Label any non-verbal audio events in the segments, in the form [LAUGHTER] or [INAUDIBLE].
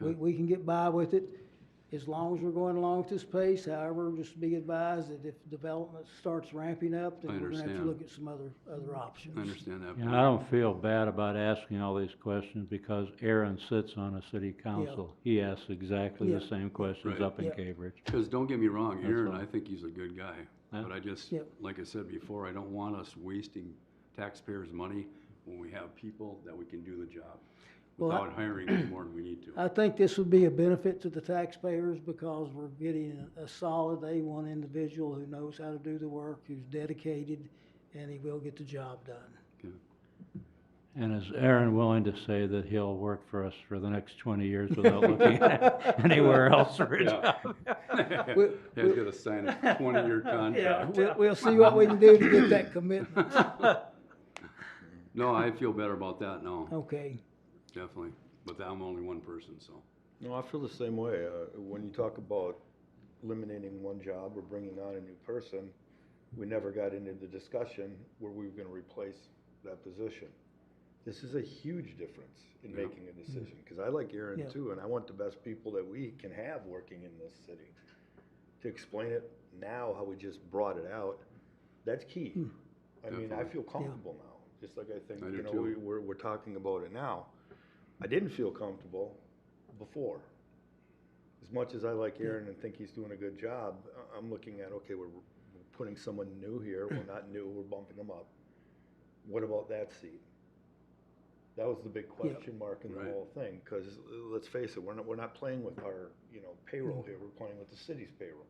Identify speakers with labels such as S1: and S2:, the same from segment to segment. S1: We, we can get by with it as long as we're going along at this pace. However, just be advised that if development starts ramping up,
S2: I
S1: then we're gonna have to
S2: understand.
S1: look at some other, other options.
S2: I understand that.
S3: You know, I don't feel bad about asking all these questions because Aaron sits on a city council. He asks exactly the
S1: Yeah.
S3: same questions
S2: Right.
S3: up in
S1: Yeah.
S3: Cambridge.
S2: Because don't get me wrong,
S3: That's
S2: Aaron,
S3: all.
S2: I think he's a good guy.
S3: Yeah.
S2: But I just,
S1: Yep.
S2: like I said before, I don't want us wasting taxpayers' money when we have people that we can do the job
S1: Well, I- Uh,
S2: without hiring any more than we need to.
S1: I think this would be a benefit to the taxpayers because we're getting a a solid A1 individual who knows how to do the work, who's dedicated, and he will get the job done.
S3: And is Aaron willing to say that he'll work for us for the next twenty years
S1: [LAUGHS]
S3: without looking at anywhere else for a
S2: Yeah.
S3: job?
S2: Yeah,
S1: We-
S2: He's gonna sign a
S1: [LAUGHS]
S2: twenty-year
S1: Yeah,
S2: contract.
S1: we'll, we'll see what we can do to get that commitment.
S2: [LAUGHS] No, I feel better about that, no,
S1: Okay,
S2: definitely. But I'm only one person, so.
S4: No, I feel the same way. Uh, when you talk about eliminating one job or bringing on a new person, we never got into the discussion where we were going to replace that position. This is a huge difference in
S2: Yeah.
S4: making a decision because I like Aaron
S1: Yeah.
S4: too, and I want the best people that we can have working in this city. To explain it now, how we just brought it out, that's key. I mean, I
S2: Definitely.
S4: feel comfortable now, just like I think
S2: I do
S4: you know
S2: too.
S4: we, we're we're talking about it now. I didn't feel comfortable before. As much as I like Aaron and think he's doing a good job, I- I'm looking at, okay, we're we're putting someone new here, we're not new, we're bumping them up. What about that seat? That was the big question mark in the
S2: Right.
S4: whole thing, because let's face it, we're not, we're not playing with our, you know, payroll here, we're playing with the city's payroll.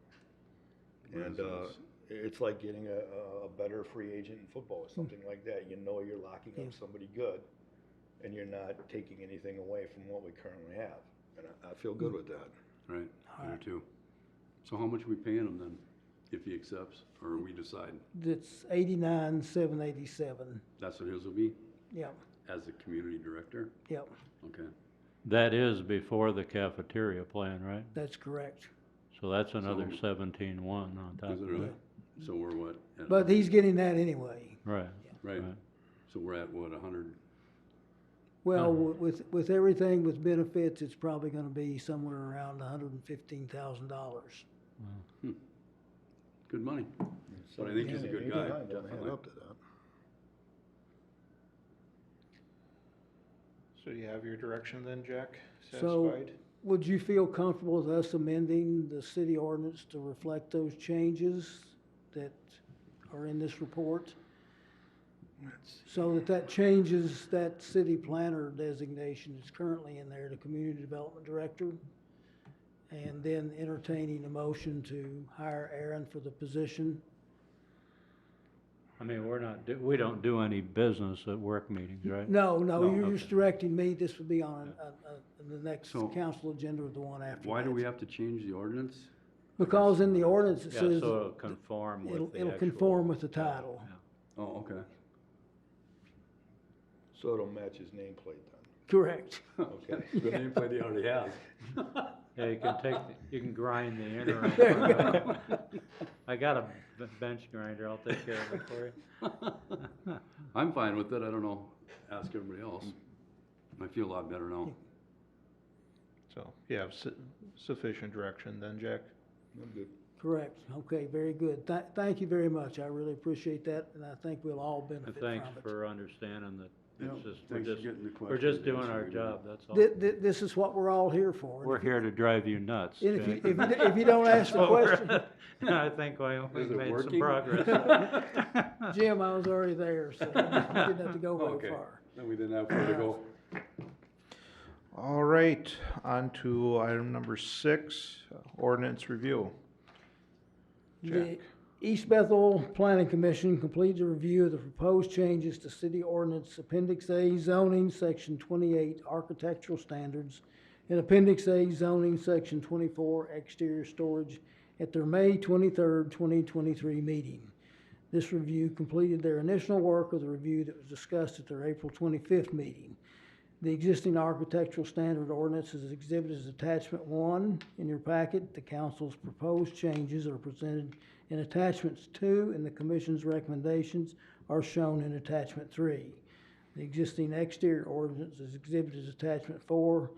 S4: And, uh,
S2: Residents.
S4: it's like getting a, a- a better free agent in football or something like that. You know you're locking
S1: Yeah.
S4: up somebody good and you're not taking anything away from what we currently have. And I, I feel good with that.
S2: Right, I do
S1: Alright.
S2: too. So how much we paying him then, if he accepts, or we decide?
S1: that's eighty-nine, seven eighty-seven.
S2: That's what his will be,
S1: Yep,
S2: as the community director?
S1: yep,
S2: Okay,
S3: That is before the cafeteria plan, right?
S1: that's correct.
S3: So that's another
S2: So-
S3: seventeen one on top
S2: is it
S3: of
S2: really?
S3: it.
S2: So we're what? at-
S1: But he's getting that anyway.
S3: Right,
S2: Right,
S3: right.
S2: so we're at what, a hundred?
S1: Well, wi- with, with everything with benefits, it's probably gonna be somewhere around hundred and fifteen thousand dollars.
S2: Good money. But I think he's a good guy,
S4: Hmm. Yeah, don't
S2: definitely.
S4: add up to that.
S5: So do you have your direction then, Jack?
S1: So,
S5: Satisfied?
S1: would you feel comfortable with us amending the city ordinance to reflect those changes that are in this report? So that that changes that city planner designation that's currently in there, the community development director? And then entertaining a motion to hire Aaron for the position?
S3: I mean, we're not, do- we don't do any business at work meetings, right?
S1: No, no,
S3: No,
S1: you're just
S3: okay.
S1: directing me, this would be on, uh, uh, the next
S2: So-
S1: council agenda or the one after
S2: Why do
S1: that.
S2: we have to change the ordinance?
S1: Because in the ordinance it
S3: Yeah,
S1: says.
S3: so it'll conform with
S1: it'll-
S3: the
S1: it'll
S3: actual-
S1: conform with the
S3: yeah,
S1: title.
S3: yeah.
S2: Oh, okay.
S4: So it'll match his nameplate then.
S1: Correct.
S2: [LAUGHS]
S4: Okay.
S2: The nameplate he already has.
S3: Yeah, you can take, the- you can
S1: [LAUGHS]
S3: grind the interim.
S1: There you
S3: part out. I got a b- bench grinder, I'll take care of it for you.
S2: I'm fine with it, I don't know, ask everybody else. I feel a lot better now.
S5: So you have su- sufficient direction then, Jack?
S4: I'm good.
S1: Correct. Okay, very good. Tha- thank you very much. I really appreciate that, and I think we'll all benefit
S3: And
S1: from it.
S3: thanks for understanding that it's just, we're
S2: Thanks for
S3: just,
S2: getting the
S3: we're
S2: questions
S3: just doing
S2: answered
S3: our
S2: we did.
S3: job, that's all.
S1: Th- th- this is what we're all here for.
S3: We're here to drive you nuts.
S1: And if you,
S3: [LAUGHS] Jack.
S1: if you, if you don't ask the
S3: That's what we're-
S1: question,
S3: [LAUGHS] I think we- we've
S2: it
S3: made some
S2: working?
S3: progress.
S1: Jim, I was already there, so you didn't have to go
S2: Okay.
S1: very far.
S2: Then we didn't have where to go.
S5: All right, on to item number six, uh, ordinance review.
S1: The
S5: Jack.
S1: East Bethel Planning Commission completed a review of the proposed changes to city ordinance Appendix A zoning, Section twenty-eight architectural standards, and Appendix A zoning, Section twenty-four exterior storage at their May twenty-third, twenty twenty-three meeting. This review completed their initial work of the review that was discussed at their April twenty-fifth meeting. The existing architectural standard ordinance is exhibited as attachment one in your packet. The council's proposed changes are presented in attachments two, and the commission's recommendations are shown in attachment three. The existing exterior ordinance is exhibited as attachment four.